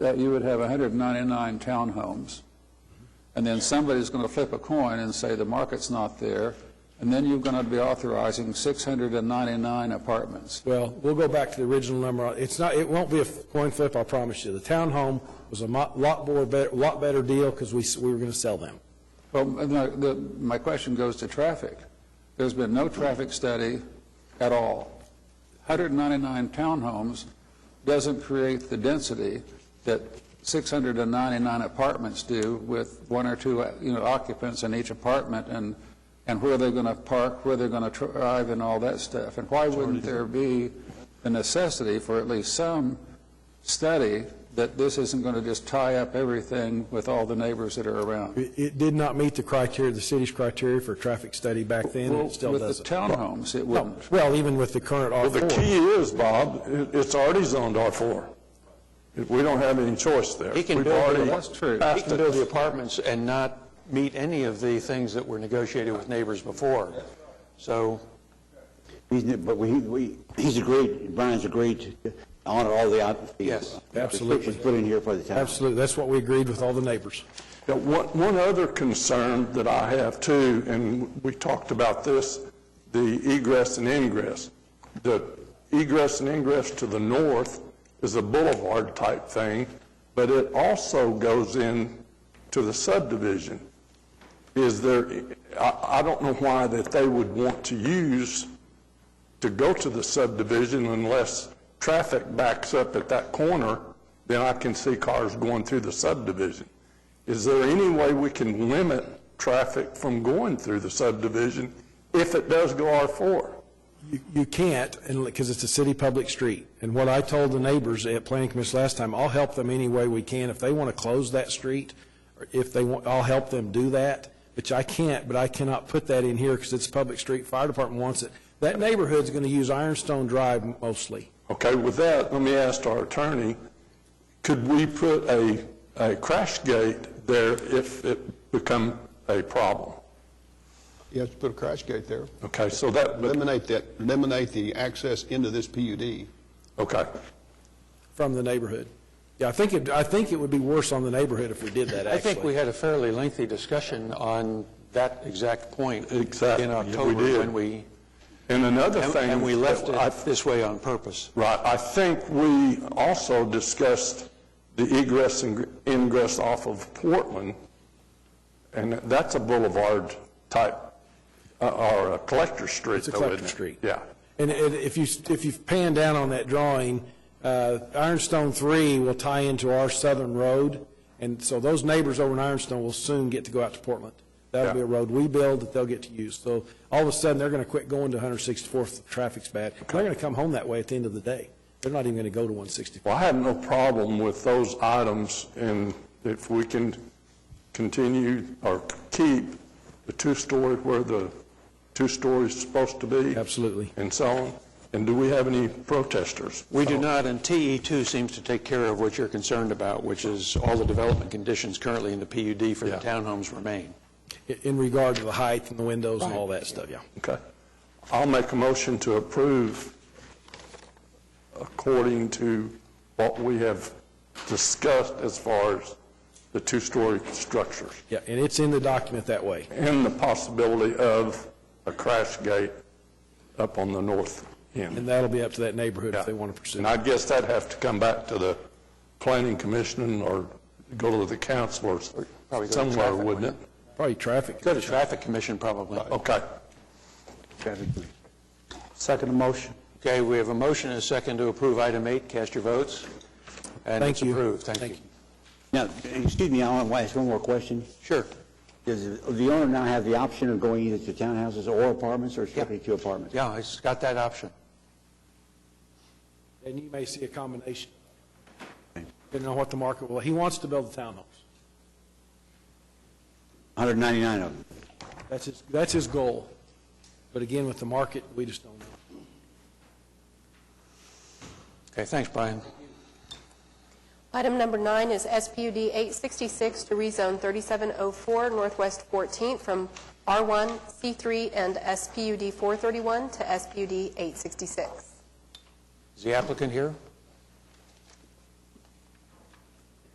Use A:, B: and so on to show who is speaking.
A: that you would have 199 townhomes. And then somebody's going to flip a coin and say the market's not there, and then you're going to be authorizing 699 apartments.
B: Well, we'll go back to the original number. It's not, it won't be a coin flip, I promise you. The townhome was a mo- lot more, bet- lot better deal because we, s- we were going to sell them.
A: Well, no, the- my question goes to traffic. There's been no traffic study at all. 199 townhomes doesn't create the density that 699 apartments do with one or two, you know, occupants in each apartment, and, and where they're going to park, where they're going to drive, and all that stuff. And why wouldn't there be the necessity for at least some study that this isn't going to just tie up everything with all the neighbors that are around?
B: It, it did not meet the criteria, the city's criteria for traffic study back then, and
A: Well,
B: it still
A: with the
B: doesn't.
A: townhomes, it
B: No,
A: wouldn't.
B: Well, even with the current
C: Well, the
B: R4.
C: key is, Bob, it- it's already zoned R4. We don't have any choice there.
D: He can
C: We've
D: build it
C: already
D: up.
A: That's true.
C: passed
D: He can
C: it.
D: build the apartments and not meet any of the things that were negotiated with neighbors before. So,
E: He's, but we, we, he's agreed, Brian's agreed to honor all the, out- the uh,
D: Yes,
B: absolutely.
E: restrictions put in here for the town.
B: Absolutely, that's what we agreed with all the neighbors.
C: Now, One one other concern that I have too, and we talked about this, the egress and ingress. The egress and ingress to the north is a boulevard type thing, but it also goes in to the subdivision. Is there, I, I don't know why that they would want to use to go to the subdivision unless traffic backs up at that corner, then I can see cars going through the subdivision. Is there any way we can limit traffic from going through the subdivision if it does go R4?
B: You- You can't, because it's a city public street. And what I told the neighbors at Planning Commission last time, I'll help them any way we can. If they want to close that street, or if they want, I'll help them do that, which I can't, but I cannot put that in here because it's a public street. Fire department wants it. That neighborhood's going to use Ironstone Drive mostly.
C: Okay, with that, let me ask our attorney, could we put a, a crash gate there if it become a problem?
F: You have to put a crash gate there.
C: Okay, so that, but-
F: Eliminate that, eliminate the access into this PUD.
C: okay,
B: from the neighborhood. Yeah, I think, it- I think it would be worse on the neighborhood if we did that,
D: I think we
B: actually.
D: had a fairly lengthy discussion on that exact point.
C: Exactly,
D: In
C: yeah, we
D: October,
C: did.
D: when we,
C: and another
D: and
C: thing.
D: and we left
C: that I
D: it this way on purpose.
C: Right, I think we also discussed the egress and ingress off of Portland, and that's a boulevard type, uh, or a collector street
B: It's a
C: though,
B: collector
C: isn't it?
B: street.
C: Yeah,
B: And and if you, if you pan down on that drawing, uh, Ironstone 3 will tie into our southern road, and so those neighbors over in Ironstone will soon get to go out to Portland. That'll
C: Yeah.
B: be a road we build that they'll get to use. So all of a sudden, they're going to quit going to 164th, if the traffic's bad. They're going to come home that way at the end of the day. They're not even going to go to 164th.
C: well, I have no problem with those items, and if we can continue or keep the two-story where the two-story is supposed to be.
B: Absolutely.
C: And so on, and do we have any protesters?
D: We do not, and TE2 seems to take care of what you're concerned about, which is all the development conditions currently in the PUD for the
C: Yeah.
D: townhomes remain.
B: i- in regard to the height and the windows and all that stuff, yeah.
C: Okay. I'll make a motion to approve according to what we have discussed as far as the two-story structures
B: Yeah, and it's in the document that way.
C: and the possibility of a crash gate up on the north
B: And
C: end.
B: that'll be up to that neighborhood
C: Yeah.
B: if they want to pursue
C: And
B: it.
C: I guess that'd have to come back to the planning commission or go to the council or
D: Probably go to
C: somewhere,
D: traffic,
C: wouldn't it?
B: Probably traffic.
D: Go to Traffic Commission, probably.
C: Uh, Okay.
E: Second motion.
D: Okay, we have a motion and a second to approve item eight. Cast your votes. And
B: Thank
D: it's
B: you.
D: approved. Thank
B: Thank
D: you.
B: you.
E: Now, excuse me, I want to ask one more question.
D: Sure.
E: Does the owner now have the option of going either to townhouses or apartments or strictly to apartments?
D: Yeah, it's got that option.
B: And you may see a combination. Didn't know what the market will, he wants to build the townhomes.
E: 199 of them.
B: That's his, that's his goal. But again, with the market, we just don't know.
D: Okay, thanks, Brian.
G: Item number nine is SPUD 866 to rezone 3704 Northwest 14th from R1, C3, and SPUD 431 to SPUD 866.
D: Is the applicant here?